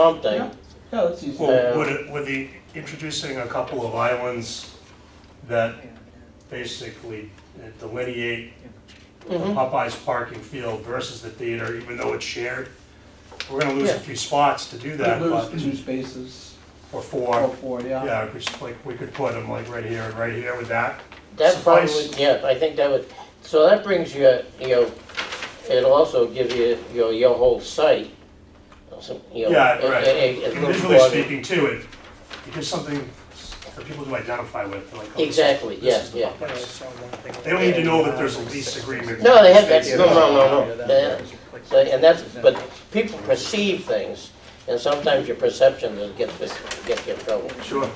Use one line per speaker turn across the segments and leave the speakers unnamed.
something.
Yeah, let's use that.
Yeah.
Well, would it, would the, introducing a couple of islands that basically delineate the
Mhm.
Popeyes parking field versus the theater, even though it's shared? We're gonna lose
Yeah.
a few spots to do that, but,
Lose two spaces,
or
or
four,
four, yeah.
yeah, we just, like, we could put them like right here and right here with that.
That probably,
Suffice.
yeah, I think that would, so that brings you, you know, it'll also give you, you know, your whole site. some- you know,
Yeah,
a-
right.
a- a- a
And
little
visually
broader-
speaking too, it, it gives something for people to identify with, like. oh, this is-
Exactly,
this
yeah,
is the
yeah.
Popeyes. They don't need to know that there's a lease agreement.
No, they have that,
that.
no, no, no, no. They- so- And that's, but people perceive things, and sometimes your perception will get, get you in trouble.
Sure.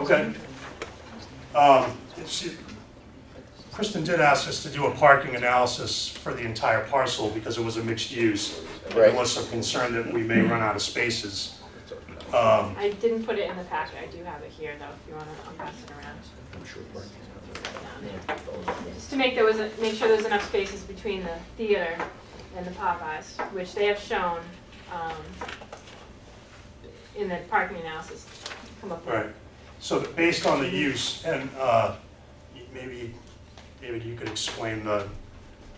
Okay. Um, she- Kristen did ask us to do a parking analysis for the entire parcel because it was a mixed use. There
Right.
was some concern that we may run out of spaces. Um,
I didn't put it in the packet, I do have it here though, if you wanna, I'll pass it around. Down there. Just to make there was, a- make sure there's enough spaces between the theater and the Popeyes, which they have shown, um, in the parking analysis, come up
Right,
with.
so that based on the use, and uh, maybe, David, you could explain the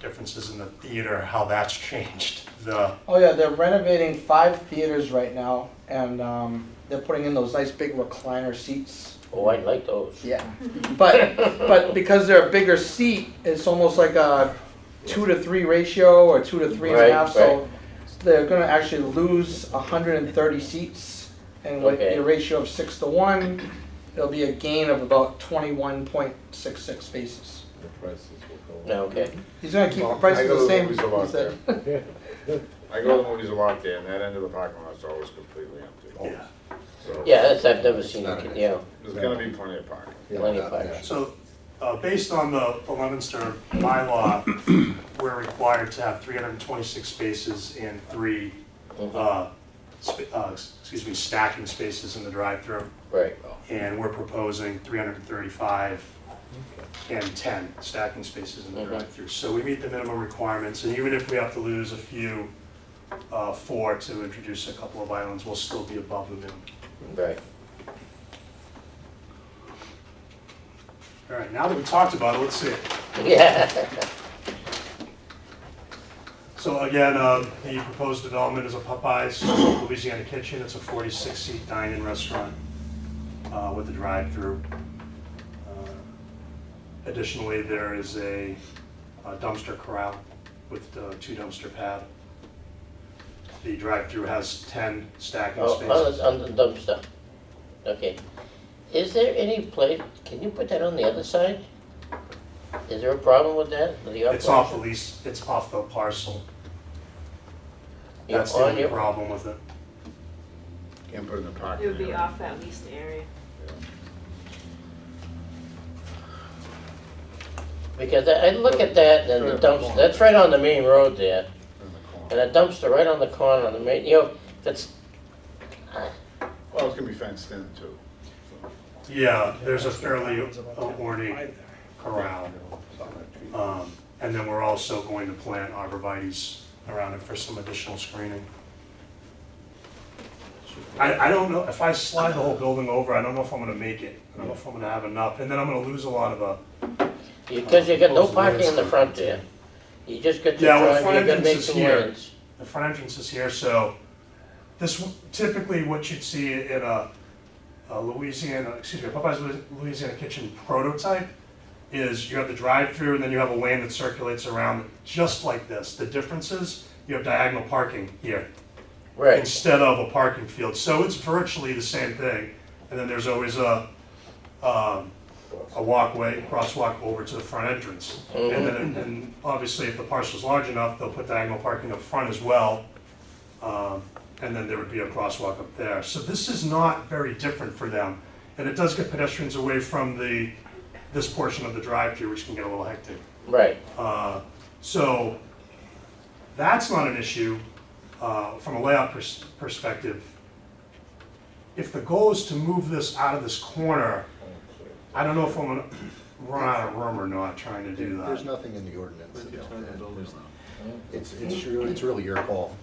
differences in the theater, how that's changed, the,
Oh, yeah, they're renovating five theaters right now, and, um, they're putting in those nice big recliner seats.
Oh, I like those.
Yeah, but, but because they're a bigger seat, it's almost like a two to three ratio, or two to three and a
Right,
half, so they're gonna actually lose hundred and thirty seats, and with
Okay.
a ratio of six to one, it'll be a gain of about twenty-one point six six spaces.
The prices will go up.
No, Okay,
He's gonna keep the
Well, I
prices
go to
the
the
same, he
movies a lot
said.
I go to the movies a lot there, and that end of the parking lot's always completely empty.
yeah.
So
yeah, that's, I've never seen, you know,
There's gonna be plenty of parking.
plenty of fires.
So, uh, based on the the Lemonster bylaw, we're required to have 326 spaces and three, uh, sp- uh, excuse me, stacking spaces in the drive-through.
right.
And we're proposing 335 and 10 stacking spaces in the
Mhm.
drive-through. So we meet the minimum requirements, and even if we have to lose a few, uh, four to introduce a couple of islands, we'll still be above the minimum.
Right.
All right, now that we talked about it, let's see it.
Yeah,
So again, uh, the proposed development is a Popeyes Louisiana Kitchen. It's a 46-seat dine-in restaurant uh, with a drive-through. Uh, Additionally, there is a a dumpster corral with uh, two dumpster pad. The drive-through has 10 stacking
oh, on
spaces.
the, on the dumpster. Okay. Is there any place, can you put that on the other side? Is there a problem with that? with the
It's off the
operation?
lease, it's off the parcel.
Yeah,
That's the
on
only
your-
problem with it.
Can't put it in the
It
parking.
would be
area.
off that leased area.
Because I, I look at that and the dumpster, that's right on the main road there,
In the corner.
and a dumpster right on the corner on the main, you know, that's,
Well, it's gonna be fenced in too.
Yeah, there's a fairly ornate corral. Um, And then we're also going to plant arborvitae's around it for some additional screening. I, I don't know, if I slide the whole building over, I don't know if I'm gonna make it. I don't know if I'm gonna have enough, and then I'm gonna lose a lot of uh, the,
because you got no parking in the front there. You just got to
Yeah, well,
drive,
front
you gotta make
entrance is
some
here.
lanes.
the front entrance is here, so this, typically what you'd see in a a Louisiana, excuse me, Popeye's Louisiana Kitchen prototype is you have the drive-through and then you have a lane that circulates around just like this. The difference is you have diagonal parking here.
Right,
instead of a parking field. So it's virtually the same thing. And then there's always a, um, a walkway, crosswalk over to the front entrance. And then, and obviously if the parcel's large enough, they'll put diagonal parking up front as well. Um, and then there would be a crosswalk up there. So this is not very different for them. And it does get pedestrians away from the, this portion of the drive-through, which can get a little hectic.
right,
Uh, So that's not an issue uh, from a layout pers- perspective. If the goal is to move this out of this corner, I don't know if I'm gonna run out of room or not trying to do
There's
that.
nothing in the ordinance about that. It's, it's really, it's really your call.